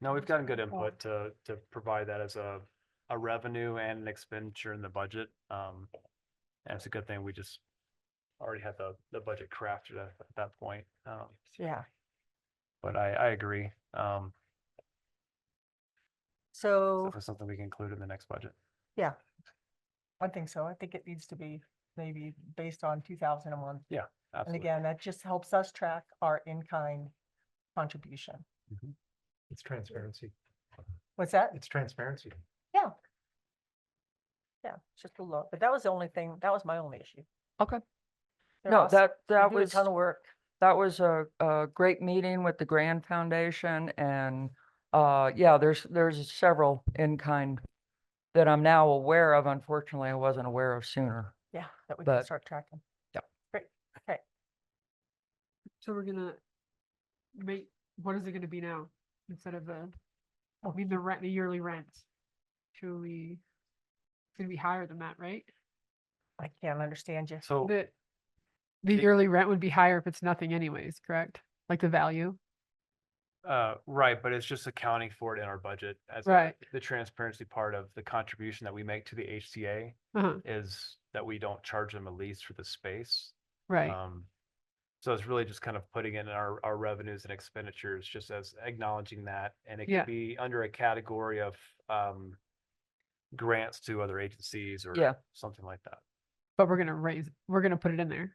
No, we've gotten good input to, to provide that as a, a revenue and an expenditure in the budget. Um, and it's a good thing we just already had the, the budget crafted at at that point. Um, Yeah, but I, I agree. Um, it's so definitely something we can include in the next budget. I think so. I think it needs to be maybe based on two thousand a month. And Absolutely. again, that just helps us track our in-kind contribution. It's transparency. What's that? Mm. It's transparency. Yeah, it's just a look, but that was the only thing, that was my only issue. Okay. They're No, awesome. that, They that do a was, ton of work. that was a, a great meeting with the Grand Foundation and, uh, yeah, there's, there's several in-kind that I'm now aware of. Unfortunately, I wasn't aware of sooner. Yeah, that we can but- start tracking. So we're gonna make, what is it gonna be now? Instead of the, I mean, the rent, the yearly rent. Should we, it's gonna be higher than that, right? I can't understand you. So The, the The- yearly rent would be higher if it's nothing anyways, correct? Like the value? Uh, right, but it's just accounting for it in our budget as a- Right. the transparency part of the contribution that we make to the HCA Uh-huh, is that we don't charge them a lease for the space. right, Um, so it's really just kind of putting in our, our revenues and expenditures, just as acknowledging that, and it Yeah. could be under a category of, um, grants to other agencies or Yeah. something like that, but we're gonna raise, we're gonna put it in there.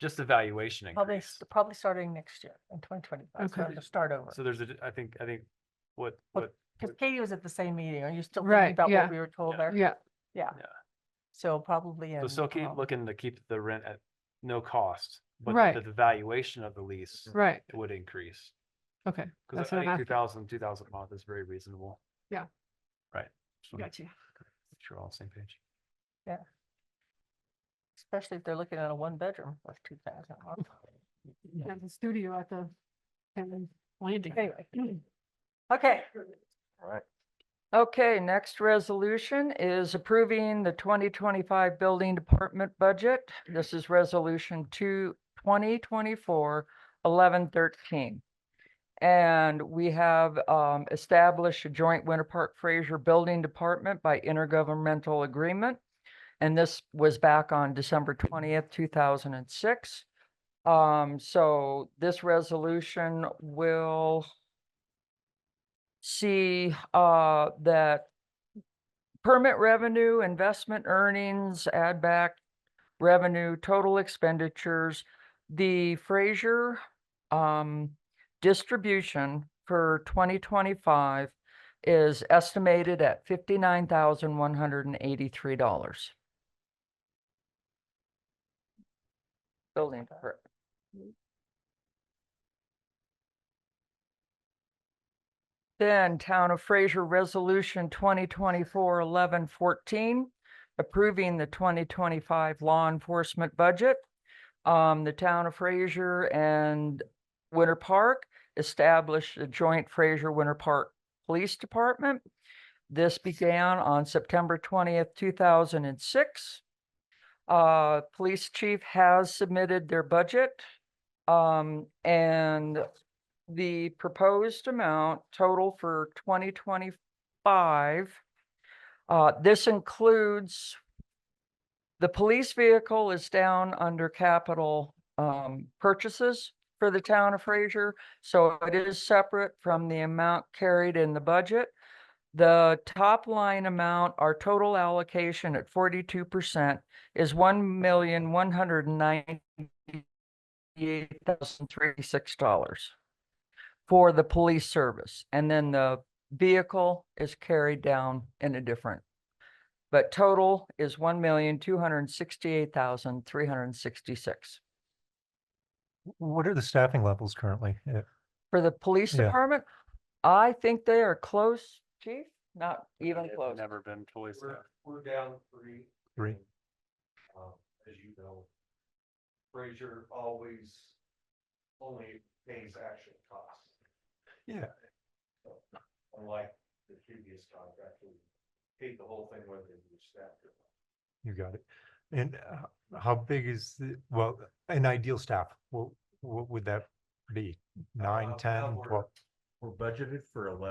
just evaluation Probably, increase. s- probably starting next year in twenty twenty-five, Okay. so to start over. So there's a, I think, I think what, What- what, Because Katie was at the same meeting. Are you still Right, thinking about yeah. what we were told Yeah. there? Yeah, So probably in. so still keep um, looking to keep the rent at no cost, but Right. the- the valuation of the lease right, would increase. okay, Cause That's I- I what I'm think two after. thousand, two thousand a month is very reasonable. Yeah. Right. Just wanna make gotcha. sure we're all on the same page. Especially if they're looking at a one-bedroom with two thousand. There's a studio at the Hammond landing. Anyway. Okay, Okay, next resolution is approving the twenty twenty-five building department budget. This is resolution two, twenty twenty-four, eleven thirteen. And we have um established a joint Winter Park Fraser Building Department by intergovernmental agreement. And this was back on December twentieth, two thousand and six. Um, so this resolution will see uh that permit revenue, investment earnings, add back revenue, total expenditures, the Fraser um distribution for twenty twenty-five is estimated at fifty-nine thousand one hundred and eighty-three dollars. Building permit. Then Town of Fraser Resolution 2024-11-14, approving the twenty twenty-five law enforcement budget. Um, the Town of Fraser and Winter Park established a joint Fraser Winter Park Police Department. This began on September twentieth, two thousand and six. Uh, Police Chief has submitted their budget. Um, and the proposed amount total for twenty twenty-five. Uh, this includes the police vehicle is down under capital, um, purchases for the town of Fraser. So it is separate from the amount carried in the budget. The top line amount, our total allocation at forty-two percent is one million, one hundred and ninety-eight thousand, thirty-six dollars for the police service. And then the vehicle is carried down in a different. But total is one million, two hundred and sixty-eight thousand, three hundred and sixty-six. What are the staffing levels currently? Uh, For the police Yeah. department, I think they are close, chief, not even It's close. Never been fully staffed. We're down three. Three. Um, as you know, Frazier always only pays actual costs. Yeah. So, Unlike the previous contract, we paid the whole thing whether it was staffed or not. You got it. And uh, how big is, the well, an ideal staff? What, what would that be? Nine, Uh, ten, we're- twelve? We're budgeted for eleven